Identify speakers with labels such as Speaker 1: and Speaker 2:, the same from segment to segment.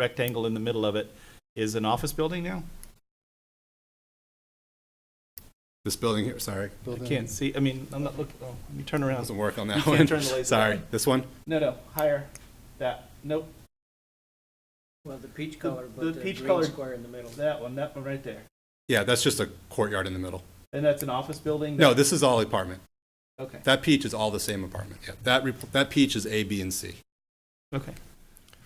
Speaker 1: rectangle in the middle of it is an office building now?
Speaker 2: This building here, sorry,
Speaker 1: I can't see, I mean, I'm not looking, oh, let me turn around.
Speaker 2: doesn't work on
Speaker 1: You
Speaker 2: that
Speaker 1: can't
Speaker 2: one.
Speaker 1: turn the laser.
Speaker 2: Sorry, this one?
Speaker 1: No, no, higher, that, nope,
Speaker 3: Well, the peach color,
Speaker 1: the
Speaker 3: but the
Speaker 1: peach
Speaker 3: green
Speaker 1: colored-
Speaker 3: square in the middle.
Speaker 1: that one, that one right there.
Speaker 2: Yeah, that's just a courtyard in the middle.
Speaker 1: And that's an office building?
Speaker 2: No, this is all apartment.
Speaker 1: Okay,
Speaker 2: That peach is all the same apartment. Yeah, that, re- that peach is A, B, and C.
Speaker 1: okay.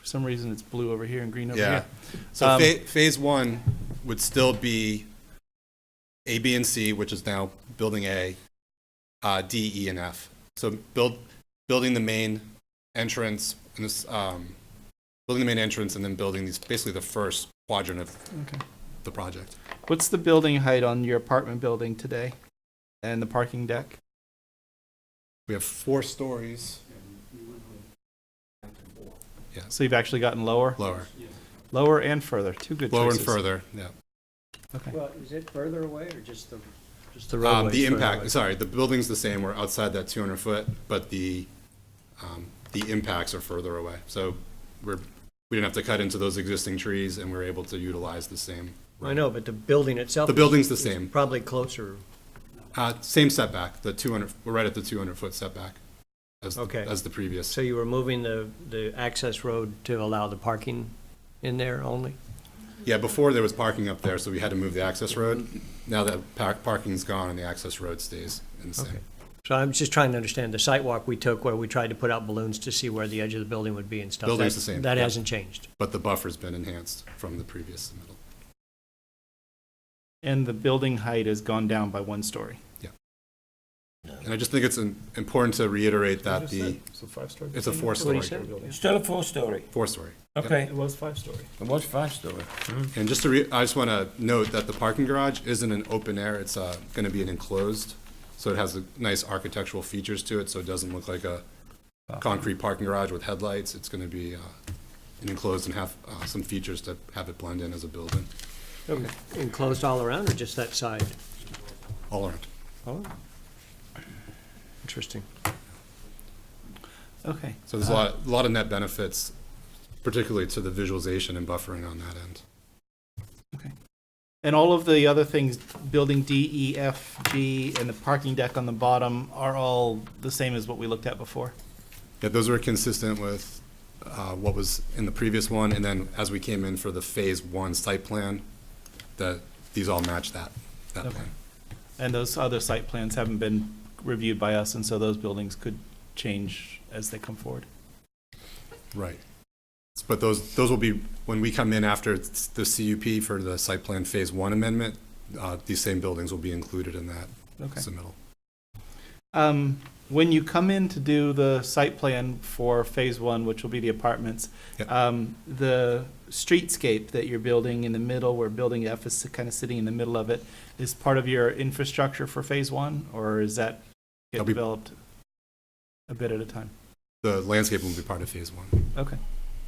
Speaker 1: For some reason, it's blue over here and green over
Speaker 2: Yeah.
Speaker 1: here.
Speaker 2: So
Speaker 1: Um,
Speaker 2: pha- phase one would still be A, B, and C, which is now building A, uh, D, E, and F. So build, building the main entrance and this, um, building the main entrance and then building these, basically the first quadrant of
Speaker 1: Okay.
Speaker 2: the project.
Speaker 1: What's the building height on your apartment building today? And the parking deck?
Speaker 2: We have four stories
Speaker 1: So you've actually gotten lower,
Speaker 2: lower,
Speaker 1: lower and further, two good
Speaker 2: lower
Speaker 1: choices.
Speaker 2: and further, yeah.
Speaker 1: Okay.
Speaker 3: Well, is it further away or just the, just the
Speaker 2: Um,
Speaker 3: roadway?
Speaker 2: the impact, sorry, the building's the same, we're outside that 200 foot, but the, um, the impacts are further away. So we're, we didn't have to cut into those existing trees and we're able to utilize the same.
Speaker 4: I know, but the building itself.
Speaker 2: The building's the
Speaker 4: is
Speaker 2: same.
Speaker 4: Probably closer.
Speaker 2: Uh, same setback, the 200, we're right at the 200 foot setback as, the-
Speaker 4: Okay.
Speaker 2: as the previous.
Speaker 4: So you were moving the, the access road to allow the parking in there only?
Speaker 2: Yeah, before there was parking up there, so we had to move the access road. Now that par- parking's gone and the access road stays in the same.
Speaker 4: Okay. So I'm just trying to understand the site walk we took where we tried to put out balloons to see where the edge of the building would be and stuff.
Speaker 2: Building's
Speaker 4: that-
Speaker 2: the same,
Speaker 4: That
Speaker 2: yeah.
Speaker 4: hasn't changed.
Speaker 2: But the buffer's been enhanced from the previous submittal.
Speaker 1: And the building height has gone down by one story.
Speaker 2: And I just think it's im- important to reiterate that the, it's a four-story,
Speaker 4: What he said.
Speaker 5: Still a four-story,
Speaker 2: four-story.
Speaker 5: okay.
Speaker 1: was five story.
Speaker 5: It was five-story.
Speaker 2: And just to re, I just want to note that the parking garage isn't an open air, it's, uh, gonna be an enclosed, so it has a nice architectural features to it, so it doesn't look like a concrete parking garage with headlights, it's gonna be, uh, an enclosed and have, uh, some features to have it blend in as a building,
Speaker 4: Enclosed all around or just that side?
Speaker 2: all around.
Speaker 4: Oh. Interesting.
Speaker 1: Okay.
Speaker 2: So there's a lot, a lot of net benefits, particularly to the visualization and buffering on that end.
Speaker 1: And all of the other things, building D, E, F, G, and the parking deck on the bottom are all the same as what we looked at before?
Speaker 2: Yeah, those were consistent with uh, what was in the previous one, and then as we came in for the Phase One site plan, that, these all match that, that
Speaker 1: Okay.
Speaker 2: plan.
Speaker 1: And those other site plans haven't been reviewed by us, and so those buildings could change as they come forward.
Speaker 2: Right. But those, those will be, when we come in after it's the CUP for the site plan Phase One amendment, uh, these same buildings will be included in that
Speaker 1: Okay.
Speaker 2: submittal.
Speaker 1: Um, when you come in to do the site plan for phase one, which will be the apartments,
Speaker 2: Yep.
Speaker 1: um, the streetscape that you're building in the middle, where building F is kind of sitting in the middle of it, is part of your infrastructure for phase one, or is that get
Speaker 2: That'll be-
Speaker 1: developed a bit at a time?
Speaker 2: The landscape will be part of Phase One.
Speaker 1: Okay,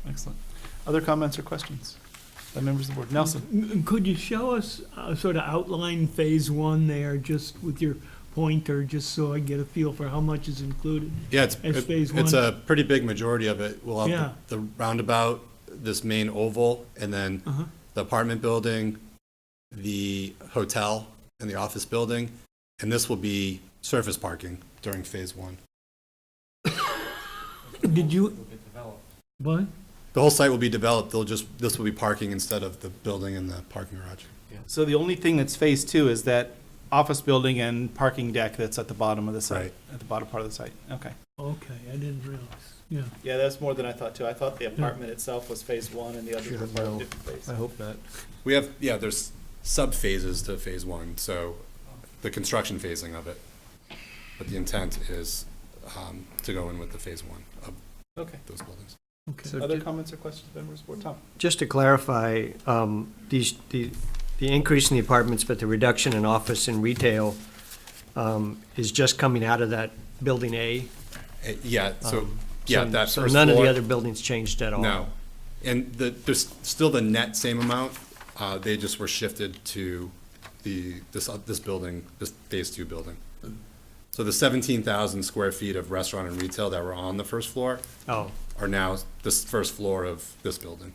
Speaker 1: excellent. Other comments or questions by members of the board? Nelson?
Speaker 6: M- Could you show us, uh, sort of outline phase one there, just with your pointer, just so I get a feel for how much is included?
Speaker 2: Yeah, it's,
Speaker 6: As Phase
Speaker 2: it's
Speaker 6: One?
Speaker 2: a pretty big majority of it. We'll have the the roundabout, this main oval, and then
Speaker 6: Uh-huh.
Speaker 2: the apartment building, the hotel, and the office building, and this will be surface parking during phase one.
Speaker 6: Did you? What?
Speaker 2: The whole site will be developed, they'll just, this will be parking instead of the building and the parking garage.
Speaker 1: So the only thing that's phase two is that office building and parking deck that's at the bottom of the site,
Speaker 2: Right.
Speaker 1: at the bottom part of the site, okay.
Speaker 6: Okay, I didn't realize, yeah.
Speaker 1: Yeah, that's more than I thought too. I thought the apartment itself was phase one and the others were part of
Speaker 4: no.
Speaker 1: different
Speaker 4: I
Speaker 1: phases.
Speaker 4: hope not.
Speaker 2: We have, yeah, there's sub-phases to phase one, so the construction phasing of it. But the intent is um, to go in with the phase one of
Speaker 1: Okay.
Speaker 2: those buildings.
Speaker 4: So
Speaker 1: Other
Speaker 4: ju-
Speaker 1: comments or questions, members of the board? Tom?
Speaker 4: Just to clarify, um, these, the, the increase in the apartments, but the reduction in office and retail um, is just coming out of that building A?
Speaker 2: Uh, Yeah, so,
Speaker 4: Um,
Speaker 2: yeah,
Speaker 4: so-
Speaker 2: that first floor.
Speaker 4: So none of the other buildings changed at all?
Speaker 2: No. And the, there's still the net same amount, uh, they just were shifted to the, this, uh, this building, this phase two building. So the seventeen thousand square feet of restaurant and retail that were on the first floor
Speaker 4: Oh,
Speaker 2: are now this first floor of this building.